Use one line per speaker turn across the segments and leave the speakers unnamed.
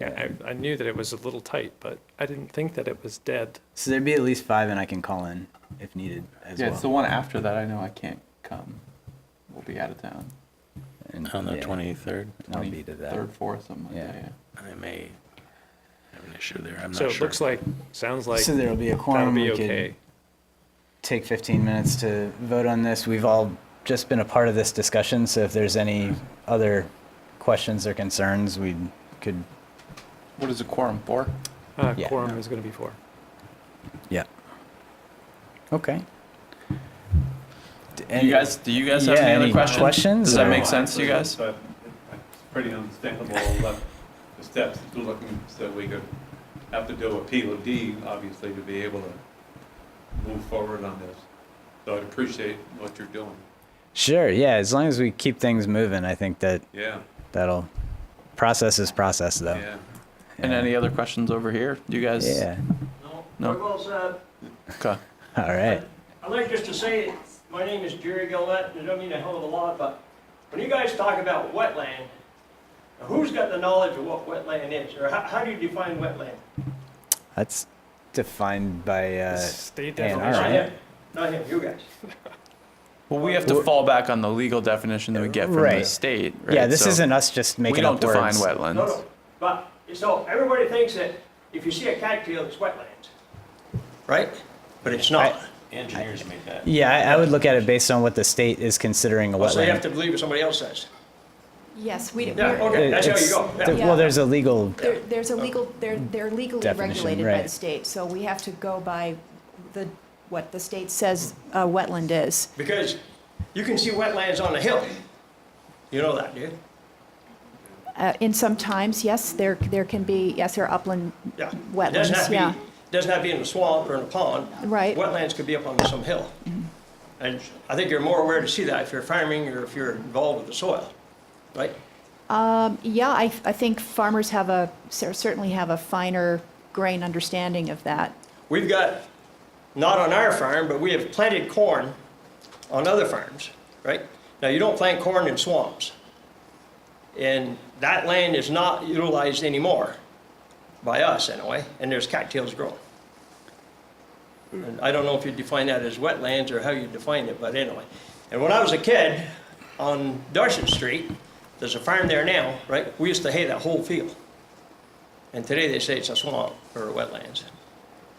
Yeah, I, I knew that it was a little tight, but I didn't think that it was dead.
So there'd be at least five, and I can call in if needed as
Yeah,
well.
it's the one after that. I know I can't come. We'll be out of town.
And-
On the
yeah,
23rd,
and I'll be to that.
Third, fourth, something like that.
Yeah.
Yeah.
I may have an issue there. I'm not
So
sure.
it looks like, sounds like
so there'll be a
that'll
quorum.
be
we could
okay.
take 15 minutes to vote on this. We've all just been a part of this discussion, so if there's any other questions or concerns, we could.
What is a quorum for?
Uh,
Yeah.
quorum is gonna be four.
Yeah. Okay. D-
you
any-
guys, do you guys have
yeah,
any other
any
questions?
questions,
Does that
or-
make sense to you guys?
But It's pretty understandable that the steps that you're looking, so we could have to do a POD, obviously, to be able to move forward on this. So I'd appreciate what you're doing.
Sure. Yeah. As long as we keep things moving, I think that
Yeah,
that'll process is process though.
yeah.
And any other questions over here? You guys?
Yeah.
No.
Very well said.
Okay.
All right.
I'd like just to say, my name is Jerry Gillette, and I don't mean a hell of a lot, but when you guys talk about wetland, who's got the knowledge of what wetland is, or how, how do you define wetland?
That's defined by. Uh,
State
and
definition.
All
Not
right.
him, Not him, you guys.
Well, we have to fall back on the legal definition that we get from the
Right.
state. Right?
yeah. This
So
isn't us just making
We don't
up
define
words.
wetlands.
No, no, but, so everybody thinks that if you see a cattail, it's wetlands. Right? But it's
not.
Engineers make that.
Yeah, I, I would look at it based on what the state is considering a wetland.
Oh, So you have to believe what somebody else says.
Yes, we,
Yeah,
we're-
okay, that's how
It's-
you go, yeah.
th- Well, there's a legal.
there- there's
Oh.
a legal, they're, they're legally
Definition,
regulated by
right.
the state, so we have to go by the, what the state says a wetland is.
Because you can see wetlands on a hill. You know that, do you?
Uh, In some times, yes, there, there can be, yes, there are upland
Yeah. It doesn't have
wetlands,
to be-
yeah.
Doesn't have to be in a swamp or in a pond.
Right.
Wetlands could be up on some hill. And I think you're more aware to see that if you're farming or if you're involved with the soil, right?
Yeah, I, I think farmers have a, cer- certainly have a finer grain understanding of that.
We've got, not on our farm, but we have planted corn on other farms, right? Now, you don't plant corn in swamps. And that land is not utilized anymore, by us anyway, and there's cattails growing. And I don't know if you define that as wetlands or how you define it, but anyway. And when I was a kid, on Dorset Street, there's a farm there now, right? We used to hay that whole field. And today they say it's a swamp or wetlands.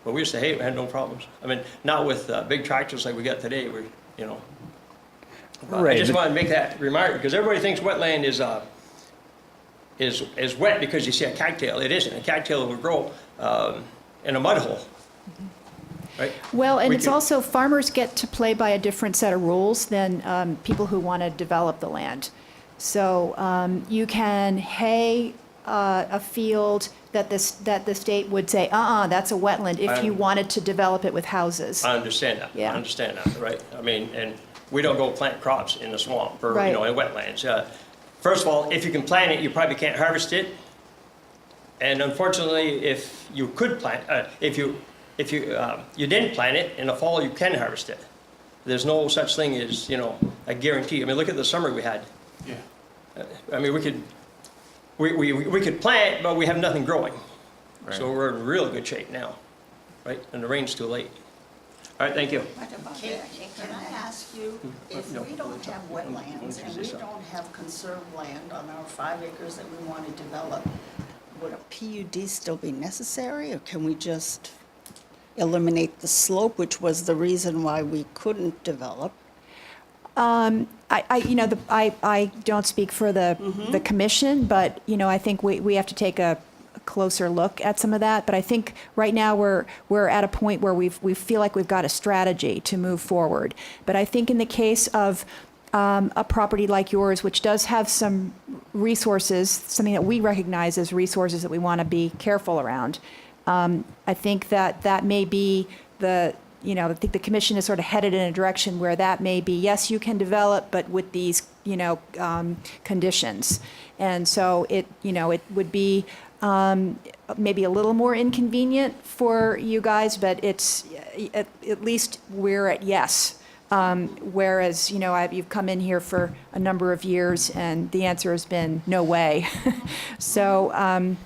But we used to hate, we had no problems. I mean, not with uh, big tractors like we got today, we, you know. But I
Right,
just
but-
wanted to make that remark, because everybody thinks wetland is, uh, is, is wet because you see a cattail. It isn't. A cattail will grow, um, in a mud hole.
Mm-hmm.
Right?
Well, and
We
it's
can-
also, farmers get to play by a different set of rules than um, people who want to develop the land. So um, you can hay uh, a field that this, that the state would say, uh-uh, that's a wetland, if you
I'm-
wanted to develop it with houses.
I understand that.
Yeah.
I understand that, right? I mean, and we don't go plant crops in the swamp or, you
Right.
know, in wetlands. Uh, First of all, if you can plant it, you probably can't harvest it. And unfortunately, if you could plant, uh, if you, if you, um, you didn't plant it, in the fall, you can harvest it. There's no such thing as, you know, a guarantee. I mean, look at the summer we had. Uh,
Yeah.
I mean, we could, we, we, we could plant, but we have nothing growing. So
Right.
we're in real good shape now, right? And the rain's too late. All right, thank you.
What about that? Can I ask you, if we don't have wetlands and we don't have conserved land on our five acres that we want to develop, would a PUD still be necessary, or can we just eliminate the slope, which was the reason why we couldn't develop?
I, I, you know, the, I, I don't speak for the, the commission, but, you know, I think we, we have to take a closer look at some of that. But I think right now we're, we're at a point where we've, we feel like we've got a strategy to move forward. But I think in the case of, um, a property like yours, which does have some resources, something that we recognize as resources that we want to be careful around, um, I think that that may be the, you know, I think the commission is sort of headed in a direction where that may be, yes, you can develop, but with these, you know, um, conditions. And so it, you know, it would be um, maybe a little more inconvenient for you guys, but it's, at, at least we're at yes. Um, whereas, you know, I've, you've come in here for a number of years and the answer has been no way. so, um,